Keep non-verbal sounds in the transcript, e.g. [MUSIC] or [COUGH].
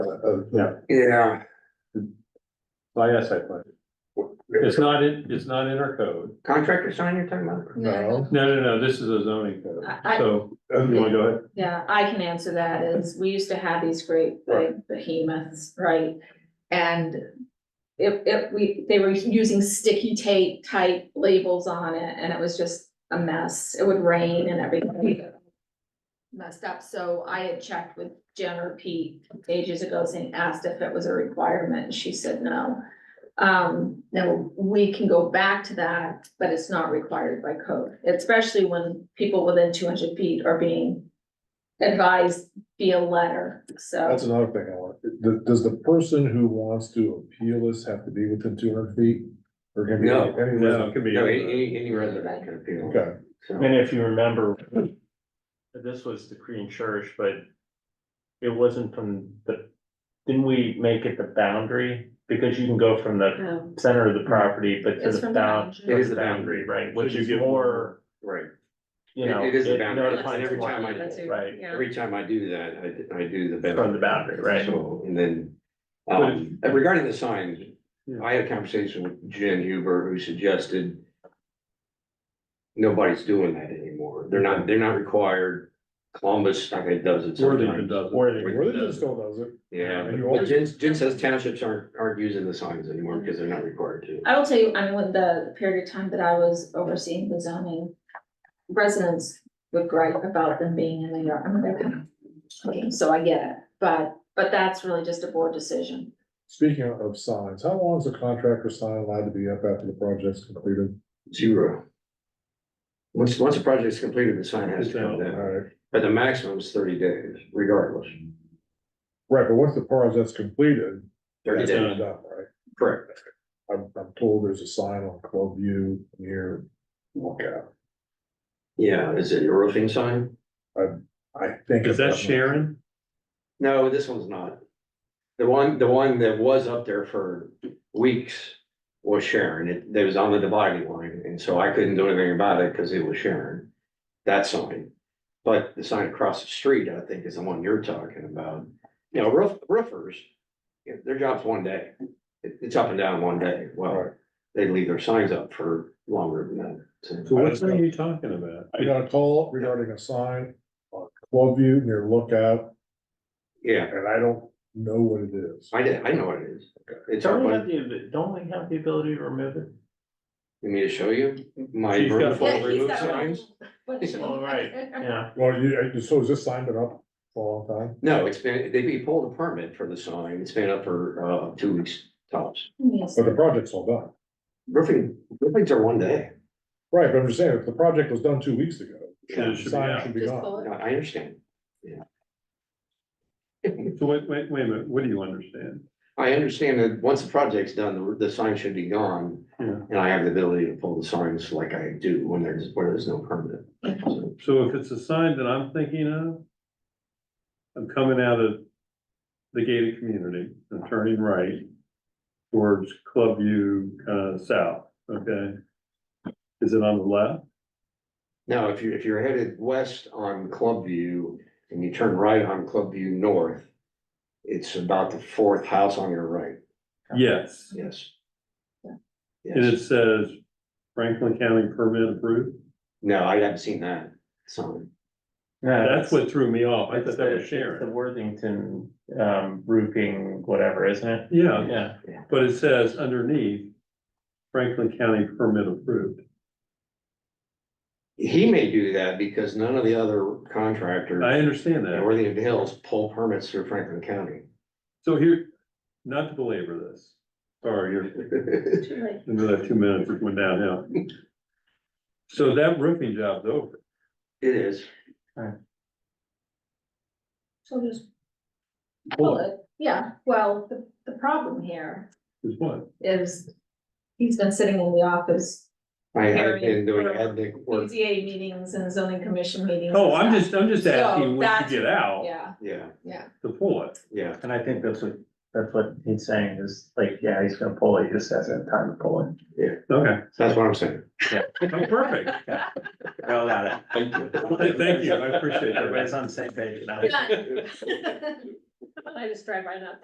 uh, yeah, Yeah, so I asked that question. It's not in, it's not in our code. contractor sign you're talking about? No, No, no, no, this is a zoning code, I- I- so, you wanna go ahead? Yeah, I can answer that is, we used to have these great big behemoths, right? And if, if we, they were using sticky tape type labels on it and it was just a mess. It would rain and everything. Messed up, so I had checked with Jen or Pete ages ago saying, asked if it was a requirement, and she said no. Um, now, we can go back to that, but it's not required by code, especially when people within two hundred feet are being advised via letter, so. that's another thing I want, Th- does the person who wants to appeal this have to be within two hundred feet? Or can be No. any No, it resident? could be. No, any, any- any resident can appeal. Okay, So, And if you remember, this was the Korean church, but it wasn't from the, didn't we make it the boundary? Because you can go from the um, center of the property, but to It's the from the bound. boundary. It is the Right, But which you is get- more, Right, you It- know. it is the it boundary. It's notifies every one, time I- that's it, Right, yeah. every time I do that, I, d- I do the. from the boundary, right? So, and then, But um, and regarding the sign, I had a conversation with Jen Huber, who suggested. Nobody's doing that anymore, they're not, they're not required, Columbus, I think, does it Worthington sometimes, does. Or they- religion still does it, yeah. And you But always- Jen, Jen says townships aren't, aren't using the signs anymore because they're not required to. I will tell you, I mean, when the period of time that I was overseeing the zoning, residents would gripe about them being in the yard, I mean, they're kind of, okay, so I get it, but, but that's really just a board decision. speaking of signs, how long is a contractor sign allowed to be up after the project's completed? Zero. Once, once a project's completed, the sign has to come down, Alright, but the maximum is thirty days regardless. right, but once the project's completed, Thirty that's days, done, right? correct. I'm, I'm told there's a sign on Club View near Lookout, Yeah, is it your roofing sign? I think. Is that Sharon? No, this one's not. The one, the one that was up there for weeks was Sharon, it, that was on the dividing line, and so I couldn't do anything about it because it was Sharon. That sign, but the sign across the street, I think, is the one you're talking about. You know, roof, roofers, yeah, their job's one day. It- it's up and down one day, well, Right. they leave their signs up for longer than that. So so. what sign are you talking about? I got a call regarding a sign on Club View near Lookout, Yeah, and I don't know what it is. I did, I know what it is. It's up, Don't we I have the, don't we have the ability to remove it? you mean to show you my She's got- vertical remove signs? All right, yeah. Well, you, so has this sign been up for a long time? No, it's been, they, they pulled a permit for the sign, it's been up for, uh, two weeks tops. Yes. But the project's all done. Roofing, roofings are one day, Right, but I'm just saying, if the project was done two weeks ago, Yeah, it the should be sign out. should be Just gone. pull I it. I understand, So wait, wait, wait a minute, what do you understand? I understand that once the project's done, the, the sign should be gone. Yeah. And I have the ability to pull the signs like I do when there's, where there's no permit. So, So if it's a sign that I'm thinking of, I'm coming out of the gated community and turning right towards Club View, kind of south, okay? Is it on the left? Now, if you, if you're headed west on Club View and you turn right on Club View North, it's about the fourth house on your right, Yes, yes. Yeah. and Yes, it says Franklin County permit approved. no, I haven't seen that sign. That's what threw me off. I It's thought that was the, it's the Sharon. Worthington, um, roofing, whatever, isn't it? Yeah, Yeah, But it says underneath Franklin County permit approved. He may do that because none of the other contractors. I understand in that. Worthington Hills pull permits through Franklin County. [LAUGHS] So here, not to belabor this, sorry, you're, Too late. another two minutes it went downhill. So that roofing job's over. It is. So just pull it, yeah, well, the, the problem here Is what? is he's been sitting in the office, I have Very been doing important. ethnic work, BZA meetings and zoning commission meetings. Oh, and I'm stuff. just, I'm just asking when you that's- get out Yeah, yeah, yeah. to pull it. yeah, and I think that's what, that's what he's saying is like, yeah, he's gonna pull it, he just hasn't had time to pull it. Okay, that's what I'm saying. Oh, perfect. Well, got Thank you. Thank you, I appreciate it. Everybody's on the same page now. Done. [LAUGHS] I just drive right up